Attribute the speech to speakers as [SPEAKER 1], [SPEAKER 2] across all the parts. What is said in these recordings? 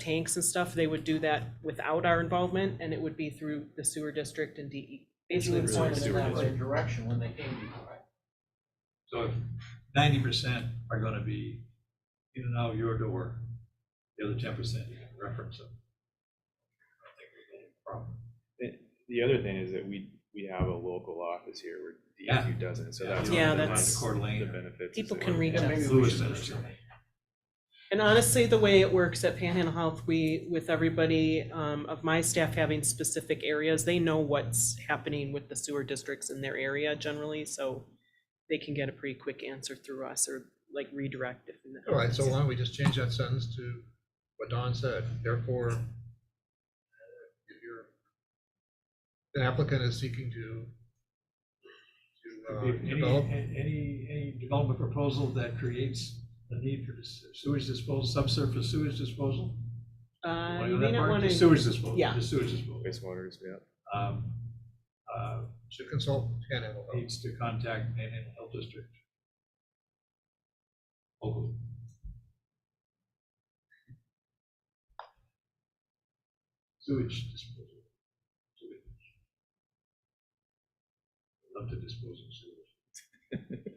[SPEAKER 1] tanks and stuff, they would do that without our involvement, and it would be through the sewer district and DE. Basically,
[SPEAKER 2] It's
[SPEAKER 1] it's
[SPEAKER 2] really
[SPEAKER 1] one of
[SPEAKER 2] sewer
[SPEAKER 1] them.
[SPEAKER 2] district.
[SPEAKER 3] Like direction when they came before.
[SPEAKER 2] So if ninety percent are gonna be in and out your door, the other ten percent you can reference them. I don't think there's any problem.
[SPEAKER 4] The other thing is that we, we have a local office here where
[SPEAKER 2] Yeah.
[SPEAKER 4] DEQ doesn't, so
[SPEAKER 2] Yeah,
[SPEAKER 4] that's.
[SPEAKER 2] you
[SPEAKER 1] Yeah,
[SPEAKER 4] one of the
[SPEAKER 1] that's-
[SPEAKER 4] Coeur d'Alene
[SPEAKER 2] The
[SPEAKER 4] or-
[SPEAKER 2] benefits
[SPEAKER 4] is
[SPEAKER 1] People
[SPEAKER 4] that
[SPEAKER 1] can
[SPEAKER 4] we're-
[SPEAKER 1] read
[SPEAKER 3] Yeah,
[SPEAKER 1] them.
[SPEAKER 3] maybe we
[SPEAKER 2] Lewis
[SPEAKER 3] should
[SPEAKER 2] Center.
[SPEAKER 3] understand.
[SPEAKER 1] And honestly, the way it works at Panhandle Health, we, with everybody um, of my staff having specific areas, they know what's happening with the sewer districts in their area generally, so they can get a pretty quick answer through us or like redirect if.
[SPEAKER 5] All right, so why don't we just change that sentence to what Don said, therefore, uh, if you're, the applicant is seeking to, to uh,
[SPEAKER 2] If Any,
[SPEAKER 5] develop,
[SPEAKER 2] any, any development proposal that creates the need for dis- sewage disposal, subsurface sewage disposal?
[SPEAKER 1] Uh,
[SPEAKER 2] Wanna go
[SPEAKER 1] you
[SPEAKER 2] that
[SPEAKER 1] may not
[SPEAKER 2] far?
[SPEAKER 1] want
[SPEAKER 2] Just
[SPEAKER 1] to,
[SPEAKER 2] Sewage disposal,
[SPEAKER 1] Yeah.
[SPEAKER 2] just sewage disposal.
[SPEAKER 4] Wastewaters, yeah.
[SPEAKER 2] Um, uh,
[SPEAKER 5] should consult Panhandle Health.
[SPEAKER 2] Needs to contact Manhattan Health District. Local. Sewage disposal. Sewage. Love to dispose of sewage.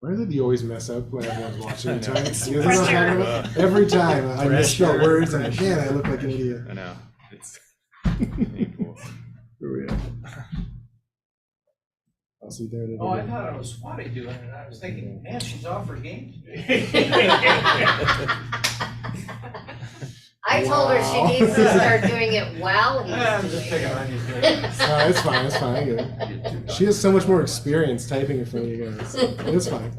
[SPEAKER 6] Why is it you always mess up when everyone's watching?
[SPEAKER 4] I
[SPEAKER 6] You
[SPEAKER 4] know.
[SPEAKER 6] guys know what I'm talking about? Every time I misspell words and again I look like an idiot.
[SPEAKER 4] I know, it's painful.
[SPEAKER 6] I'll see there today.
[SPEAKER 3] Oh, I thought it was Swati doing it, I was thinking, man, she's off her game today.
[SPEAKER 7] I told her
[SPEAKER 6] Wow.
[SPEAKER 7] she needs to start doing it well.
[SPEAKER 3] I'm just picking on you. Jay.
[SPEAKER 6] No, it's fine. It's fine. I get it. She has so much more experience typing in front of you guys. It's fine.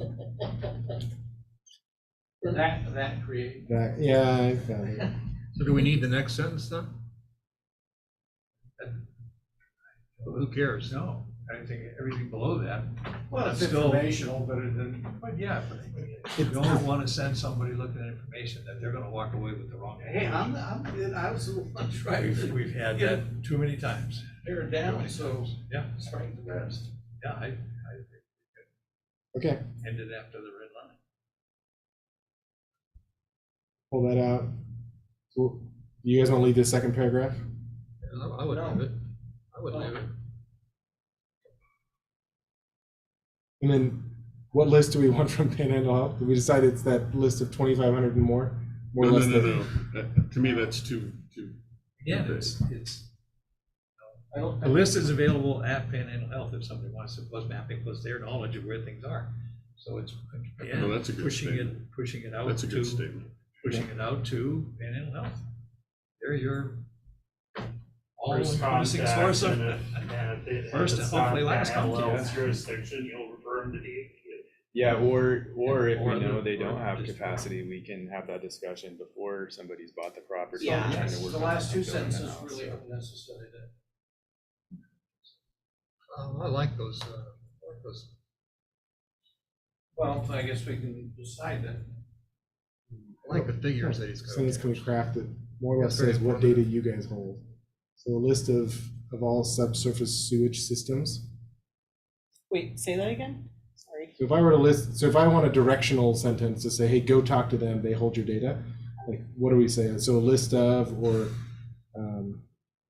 [SPEAKER 3] That, that created.
[SPEAKER 6] That- yeah, I found it.
[SPEAKER 5] So do we need the next sentence then? Who cares?
[SPEAKER 2] No, I think everything below that.
[SPEAKER 3] Well, it's
[SPEAKER 2] Still-
[SPEAKER 3] informational, but it didn't.
[SPEAKER 2] But yeah, but you don't want to send somebody looking at information that they're gonna walk away with the wrong.
[SPEAKER 3] Hey, I'm, I'm, I was the one trying
[SPEAKER 2] We've,
[SPEAKER 3] to
[SPEAKER 2] we've had that too many times.
[SPEAKER 3] tear it down, so
[SPEAKER 2] Yeah,
[SPEAKER 3] it's right the rest.
[SPEAKER 2] yeah, I, I
[SPEAKER 6] Okay,
[SPEAKER 2] ended after the red line.
[SPEAKER 6] pull that out. So, you guys want to leave this second paragraph?
[SPEAKER 5] I I would leave it. I would leave it.
[SPEAKER 6] And then, what list do we want from Panhandle Health? Did we decide it's that list of 2,500 and more? More
[SPEAKER 8] No,
[SPEAKER 6] or
[SPEAKER 8] no,
[SPEAKER 6] less
[SPEAKER 8] no,
[SPEAKER 6] than-
[SPEAKER 8] no. That- To me, that's too, too,
[SPEAKER 2] Again, it's, it's,
[SPEAKER 3] I don't-
[SPEAKER 2] the list is available at Panhandle Health if somebody wants to, plus mapping, plus their knowledge of where things are. So it's,
[SPEAKER 8] Well,
[SPEAKER 2] again,
[SPEAKER 8] that's a good
[SPEAKER 2] pushing it,
[SPEAKER 8] statement.
[SPEAKER 2] pushing it out
[SPEAKER 8] that's a good
[SPEAKER 2] to,
[SPEAKER 8] statement.
[SPEAKER 2] pushing it out to Panhandle Health. They're your all
[SPEAKER 9] First
[SPEAKER 2] encompassing
[SPEAKER 9] contact,
[SPEAKER 2] source of,
[SPEAKER 9] and if- and if it- if
[SPEAKER 2] First
[SPEAKER 9] it's
[SPEAKER 2] and hopefully
[SPEAKER 9] not
[SPEAKER 2] last
[SPEAKER 9] that
[SPEAKER 2] contact.
[SPEAKER 9] well's Jurisdiction, you'll refer them to the.
[SPEAKER 4] Yeah, or, or if
[SPEAKER 2] Or
[SPEAKER 4] we know
[SPEAKER 2] the-
[SPEAKER 4] they don't
[SPEAKER 2] or
[SPEAKER 4] have
[SPEAKER 2] just-
[SPEAKER 4] capacity, we can have that discussion before somebody's bought the property.
[SPEAKER 1] Yeah.
[SPEAKER 4] and trying to
[SPEAKER 3] Yes,
[SPEAKER 4] work
[SPEAKER 3] the
[SPEAKER 4] on
[SPEAKER 3] last two
[SPEAKER 4] building the
[SPEAKER 3] sentences
[SPEAKER 4] house,
[SPEAKER 3] really
[SPEAKER 4] so.
[SPEAKER 3] aren't necessary to.
[SPEAKER 5] Um, I like those, uh, I like those.
[SPEAKER 3] Well, I guess we can decide that.
[SPEAKER 5] I like the figures that he's got.
[SPEAKER 6] Sentence can be crafted, more or less
[SPEAKER 5] That's very
[SPEAKER 6] says what
[SPEAKER 5] important.
[SPEAKER 6] data you guys hold. So a list of, of all subsurface sewage systems.
[SPEAKER 1] wait, say that again? Sorry.
[SPEAKER 6] So if I were to list, so if I want a directional sentence to say, hey, go talk to them, they hold your data, like, what do we say? So a list of, or, um,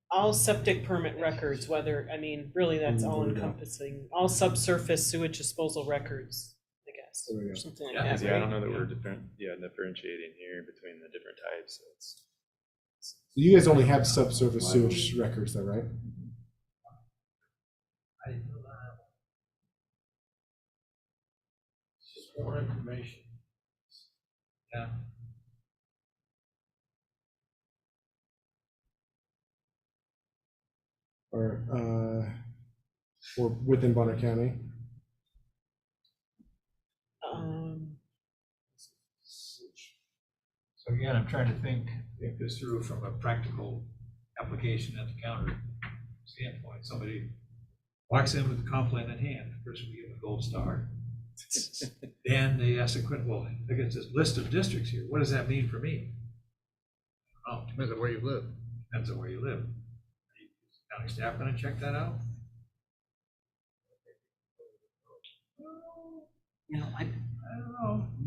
[SPEAKER 1] All septic permit records, whether, I mean, really, that's
[SPEAKER 6] Mm,
[SPEAKER 1] all
[SPEAKER 6] there we go.
[SPEAKER 1] encompassing, all subsurface sewage disposal records, I guess,
[SPEAKER 6] There we
[SPEAKER 1] or
[SPEAKER 6] go.
[SPEAKER 1] something like
[SPEAKER 2] Yeah,
[SPEAKER 1] that.
[SPEAKER 4] Because, Yeah, I
[SPEAKER 1] right?
[SPEAKER 4] don't know that we're different, yeah, differentiating here between the different types, so it's.
[SPEAKER 6] you guys only have subsurface sewage records though, right?
[SPEAKER 2] I didn't know that.
[SPEAKER 3] Just more information.
[SPEAKER 2] Yeah.
[SPEAKER 6] Or, uh, or within Bonner County?
[SPEAKER 1] Um,
[SPEAKER 2] So again, I'm trying to think, think this through from a practical application at the counter standpoint. Somebody walks in with a complaint in hand, the person we give a gold star. Then they ask the question, well, I got this list of districts here, what does that mean for me? Oh,
[SPEAKER 5] Depends on where you live.
[SPEAKER 2] depends on where you live. Is County staff gonna check that out?
[SPEAKER 1] You know, I,